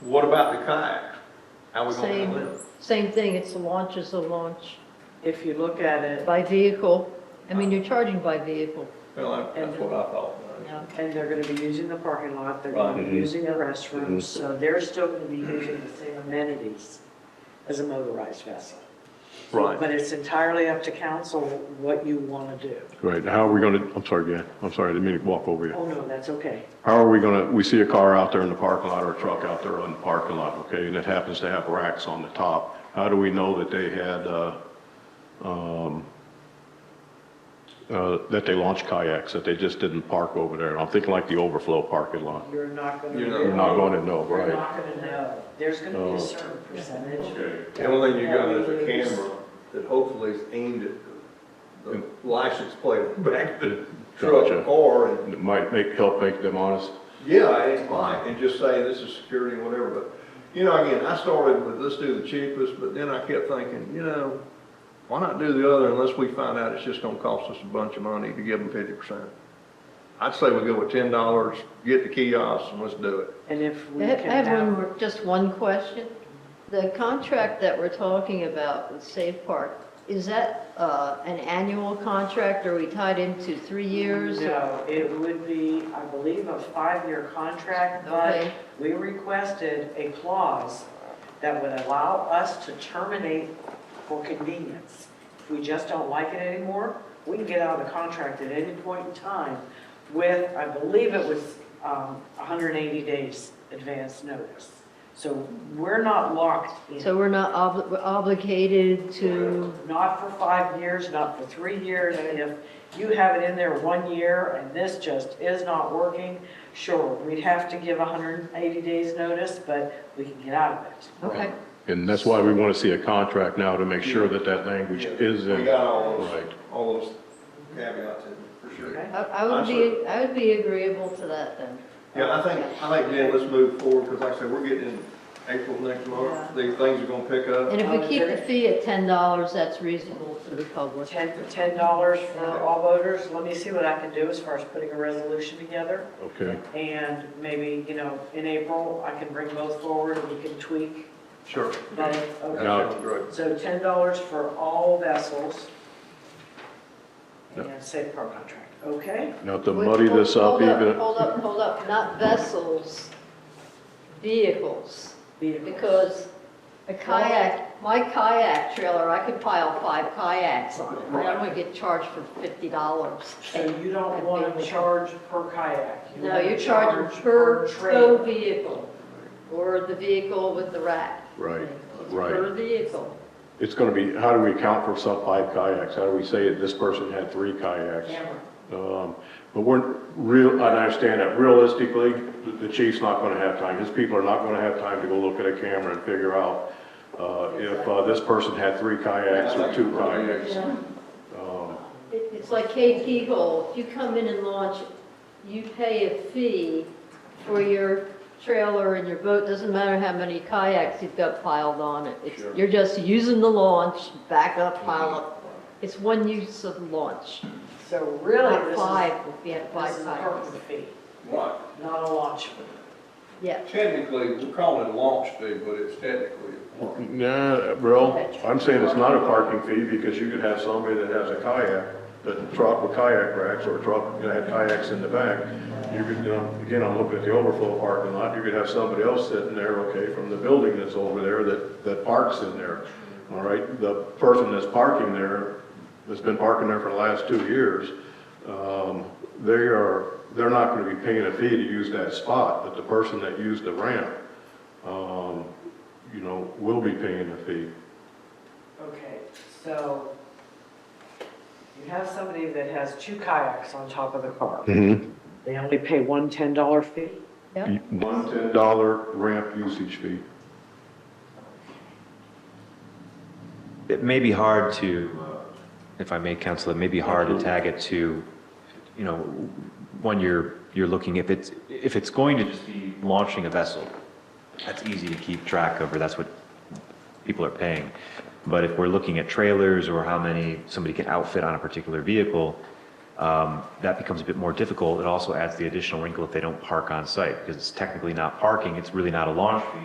What about the kayak? How we gonna Same. handle it? Same thing, it's the launch is the launch If you look at it, by vehicle. I mean, you're charging by vehicle. Well, that- that's what I thought. and they're gonna be using the parking lot, they're gonna be Right. Mhm. using the restrooms, so they're still gonna be using the same amenities as a motorized vessel. Right, But it's entirely up to council what you wanna do. right. How are we going to, I'm sorry, Dan, I'm sorry, I didn't mean to walk over you. Oh, no, that's okay. How are we going to, we see a car out there in the parking lot or a truck out there on the parking lot, okay, and it happens to have racks on the top. How do we know that they had, uh, um, uh, that they launched kayaks, that they just didn't park over there? I'm thinking like the overflow parking lot. You're not gonna. You're not- We're not going to know, You're right? not gonna know. There's gonna be Oh. a certain percentage. Okay. The only thing you got is a camera that hopefully is aimed at the the license plate on the back of the truck Gotcha. or, and, It Might make, help make them honest. yeah, it's fine, and just say this is security, whatever, but, you know, again, I started with, let's do the cheapest, but then I kept thinking, you know, why not do the other unless we find out it's just gonna cost us a bunch of money to give them fifty percent? I'd say we go with ten dollars, get the kiosks, and let's do it. And if we I have- can I have one have, more, just one question. The contract that we're talking about with Safe Park, is that uh, an annual contract? Are we tied into three years? no, it would be, I believe, a five-year contract, but Okay. we requested a clause that would allow us to terminate for convenience. If we just don't like it anymore, we can get out of the contract at any point in time with, I believe it was um, 180 days advance notice. So we're not locked in. So we're not obli- we're obligated to, Not for five years, not for three years. And if you have it in there one year and this just is not working, sure, we'd have to give 180 days notice, but we can get out of it. okay. And that's why we want to see a contract now to make sure that that language is We in. got all those, Right. all those caveats in, there, for sure. Okay? I I would be, I would be agreeable to that then. Yeah, I think, I think, Jen, let's move forward, because like I said, we're getting in April next month, these things are gonna pick up. And if we keep the fee at $10, that's reasonable to the public. Ten, ten dollars for all voters, let me see what I can do as far as putting a resolution together. Okay, And maybe, you know, in April, I can bring both forward, and we can tweak Sure. both. That Okay. No. sounds great. So ten dollars for all vessels. And safe harbor contract, okay? now to muddy this up Hold up, even, Hold up, hold up, not vessels, vehicles, Vehicles. because a kayak, my kayak trailer, I could pile five kayaks on it. I don't want to get charged for fifty dollars. So you don't want to charge per kayak? you No, wanna you're charging charge per trailer. tow vehicle, or the vehicle with the rack. right, It's right. Per vehicle. It's going to be, how do we account for some five kayaks? How do we say that this person had three kayaks? Camera. Um, But we're real, I understand that realistically, the- the chief's not going to have time, his people are not going to have time to go look at a camera and figure out uh, if uh, this person had three kayaks or two kayaks. Oh. Um, It- It's like Cape Eagle, if you come in and launch, you pay a fee for your trailer and your boat, doesn't matter how many kayaks you've got piled on it. It's- Sure. You're just using the launch, back up, pile up. It's one use of the launch, So really, not this five, is, if you have this five is a kayaks. permit fee, Right, not a launch fee. Yeah, technically, we're calling it a launch fee, but it's technically. a park. Nah, bro, I'm saying it's not a parking fee because you could have somebody that has a kayak, a truck with kayak racks or a truck that had kayaks in the back. You could, you know, again, I'm looking at the overflow parking lot, you could have somebody else sitting there, okay, from the building that's over there that, that parks in there. All right, the person that's parking there, that's been parking there for the last two years, um, they are, they're not gonna be paying a fee to use that spot, but the person that used the ramp, um, you know, will be paying a fee. Okay, so you have somebody that has two kayaks on top of the car. They only pay one $10 fee? yeah. One ten dollar ramp usage fee. It may be hard to, uh, if I may, counsel, it may be hard to tag it to, you know, when you're, you're looking, if it's, if it's going to just be launching a vessel, that's easy to keep track of, or that's what people are paying. But if we're looking at trailers or how many somebody can outfit on a particular vehicle, um, that becomes a bit more difficult. It also adds the additional wrinkle if they don't park on site, because it's technically not parking, it's really not a launch fee,